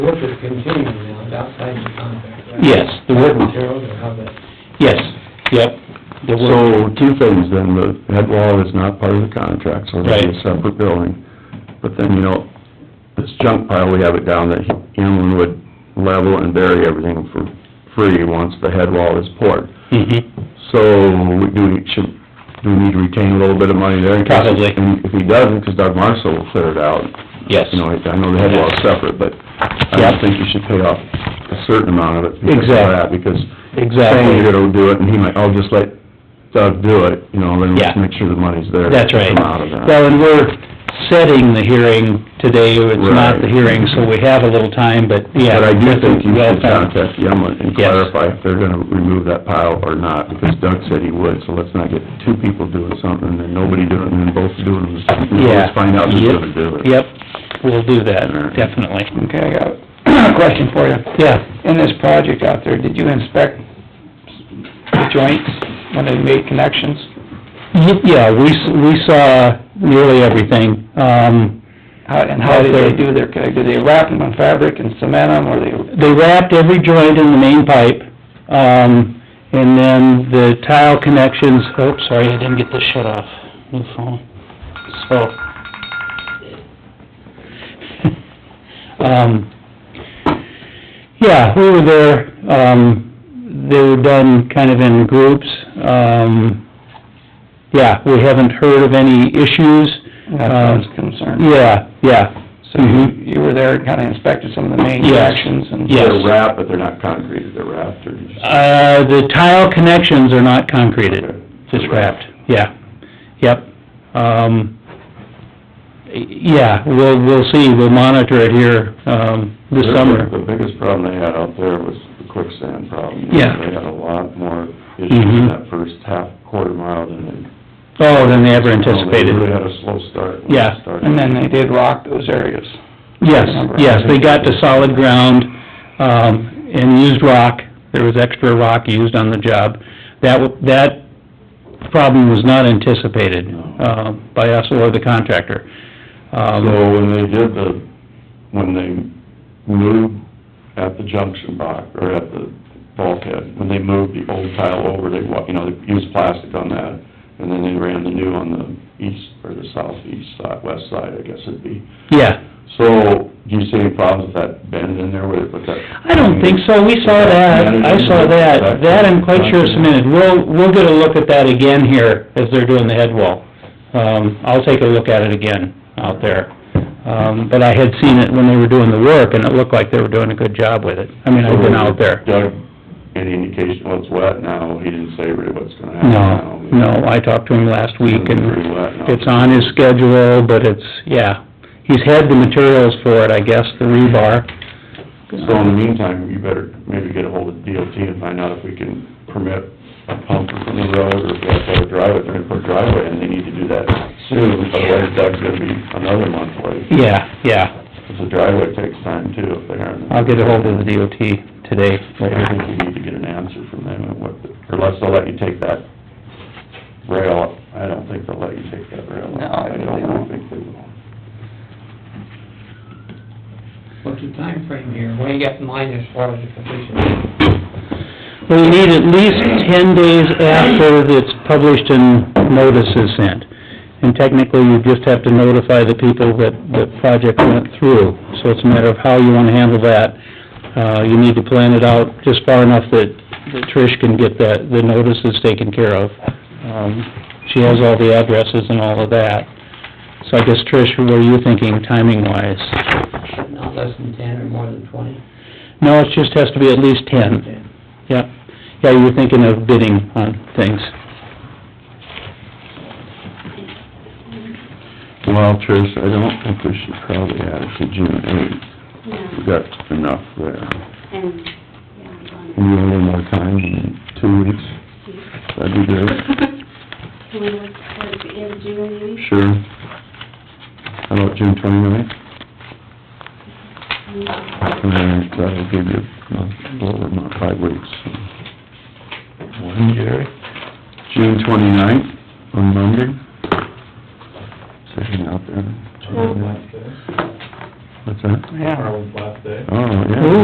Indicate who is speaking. Speaker 1: Work is continuing now, it's outside the contract, right?
Speaker 2: Yes, the work-
Speaker 1: Materials or how that,
Speaker 2: Yes, yep. The
Speaker 3: So,
Speaker 2: work-
Speaker 3: two things then, the head wall is not part of the contract, so it's a
Speaker 2: Right.
Speaker 3: separate building. But then, you know, this junk pile, we have it down that Inland would level and bury everything for free once the head wall is poured.
Speaker 2: Mhm.
Speaker 3: So, we do, should, do we need to retain a little bit of money there? in case-
Speaker 2: Probably.
Speaker 3: And if he doesn't, 'cause Doug Marshall will clear it out.
Speaker 2: Yes.
Speaker 3: You know, I know the head wall's separate, but I
Speaker 2: Yeah.
Speaker 3: don't think you should pay off a certain amount of it. because of
Speaker 2: Exactly.
Speaker 3: that, Because saying
Speaker 2: Exactly.
Speaker 3: you're gonna do it, and he might, I'll just let Doug do it, you know, then let's
Speaker 2: Yeah.
Speaker 3: make sure the money's there. to
Speaker 2: That's right.
Speaker 3: Come out of that.
Speaker 2: Well, and we're setting the hearing today, it's not the
Speaker 3: Right.
Speaker 2: hearing, so we have a little time, but yeah.
Speaker 3: But I do think you
Speaker 2: well uh,
Speaker 3: should
Speaker 2: found.
Speaker 3: contact Yemlin and
Speaker 2: Yes.
Speaker 3: clarify if they're gonna remove that pile or not, because Doug said he would, so let's not get two people doing something, and then nobody doing it, and then both doing it.
Speaker 2: Yeah.
Speaker 3: Let's find out who's
Speaker 2: Yep.
Speaker 3: gonna do it.
Speaker 2: Yep, we'll do
Speaker 3: All right.
Speaker 2: that, definitely.
Speaker 4: Okay, I got a question for you.
Speaker 2: Yeah.
Speaker 4: In this project out there, did you inspect the joints when they made connections?
Speaker 2: Y- Yeah, we, s- we saw nearly everything. Um,
Speaker 4: How, and how did they do their, did they wrap them in fabric and cement them, or they,
Speaker 2: they wrapped every joint in the main pipe, um, and then the tile connections, oh, sorry, I didn't get this shut off, new phone. So, um, yeah, we were there, um, they were done kind of in groups, um, yeah, we haven't heard of any issues.
Speaker 4: that's what I was
Speaker 2: Um,
Speaker 4: concerned.
Speaker 2: Yeah, yeah,
Speaker 4: So you,
Speaker 2: mhm.
Speaker 4: you were there and kinda inspected some of the main
Speaker 2: Yes.
Speaker 4: connections and...
Speaker 2: Yes.
Speaker 3: They're wrapped, but they're not concrete, they're wrapped, or just...
Speaker 2: Uh, the tile connections are not concreted,
Speaker 3: Okay.
Speaker 2: just wrapped, yeah, yep. Um, y- yeah, we'll, we'll see, we'll monitor it here, um, this
Speaker 3: Their-
Speaker 2: summer.
Speaker 3: The biggest problem they had out there was the quicksand problem.
Speaker 2: Yeah.
Speaker 3: They had a lot more issues
Speaker 2: Mhm.
Speaker 3: in that first half quarter mile than they...
Speaker 2: Oh, than they ever
Speaker 3: Oh, They really
Speaker 2: anticipated.
Speaker 3: had a slow start. when
Speaker 2: Yeah.
Speaker 3: they started.
Speaker 4: And then they did rock those areas.
Speaker 2: Yes, yes, they got to solid ground, um, and used rock, there was extra rock used on the job. That, w- that problem was not anticipated,
Speaker 3: No.
Speaker 2: uh, by us or the contractor. Um,
Speaker 3: So when they did the, when they moved at the junction box, or at the bulkhead, when they moved the old tile over, they, wa- you know, they used plastic on that, and then they ran the new on the east, or the southeast side, west side, I guess it'd be.
Speaker 2: Yeah,
Speaker 3: So, do you see any problems with that bend in there with, with that?
Speaker 2: I don't think so, we saw that, I saw that, that I'm quite sure is cemented, we'll, we'll get a look at that again here as they're doing the head wall. Um, I'll take a look at it again out there, um, but I had seen it when they were doing the work, and it looked like they were doing a good job with it, I mean, I've been out there.
Speaker 3: Doug, any indication what's wet now? He didn't say really what's gonna happen
Speaker 2: No,
Speaker 3: now.
Speaker 2: no, I talked to him last week,
Speaker 3: Pretty
Speaker 2: and
Speaker 3: wet now.
Speaker 2: it's on his schedule, but it's, yeah, he's had the materials for it, I guess, the rebar.
Speaker 3: So in the meantime, you better maybe get ahold of DOT and find out if we can permit a pump from the road or if that's our driveway, they're gonna put a driveway and they need to do that soon, otherwise Doug's gonna be another month late.
Speaker 2: Yeah, yeah.
Speaker 3: Cause the driveway takes time too, if they aren't.
Speaker 2: I'll get ahold of the DOT today.
Speaker 3: I think we need to get an answer from them and what, unless they'll let you take that rail, I don't think they'll let you take that rail.
Speaker 4: No,
Speaker 3: I
Speaker 4: I think they
Speaker 3: don't really
Speaker 4: won't.
Speaker 3: think they will.
Speaker 1: what's the time frame here? What do you got in mind as far as the completion?
Speaker 2: We need at least ten days after it's published and notice is sent. And technically, you just have to notify the people that the project went through. So it's a matter of how you wanna handle that. Uh, you need to plan it out just far enough that that Trish can get that, the notices taken care of. Um, she has all the addresses and all of that. So I guess, Trish, what are you thinking timing-wise?
Speaker 1: Not less than ten or more than twenty?
Speaker 2: No, it just has to be at least ten. Yep. Yeah, you were thinking of bidding on things.
Speaker 3: Well, Trish, I don't think we should probably add it to June eighth. We've
Speaker 5: Yeah,
Speaker 3: got enough there.
Speaker 5: and, yeah, I'm
Speaker 3: We need a little more time, in two weeks,
Speaker 5: on.
Speaker 3: Mm-hmm. that'd be great.
Speaker 5: Can we look towards the end of June, maybe?
Speaker 3: Sure. How about June twenty-ninth? And then that'll give you uh, a month, a little over a month, five weeks. When, Jerry? June twenty-ninth, on Monday. Sitting out there.
Speaker 5: Twelve.
Speaker 3: What's that?
Speaker 4: Yeah.
Speaker 3: Oh, yeah.
Speaker 2: Ooh.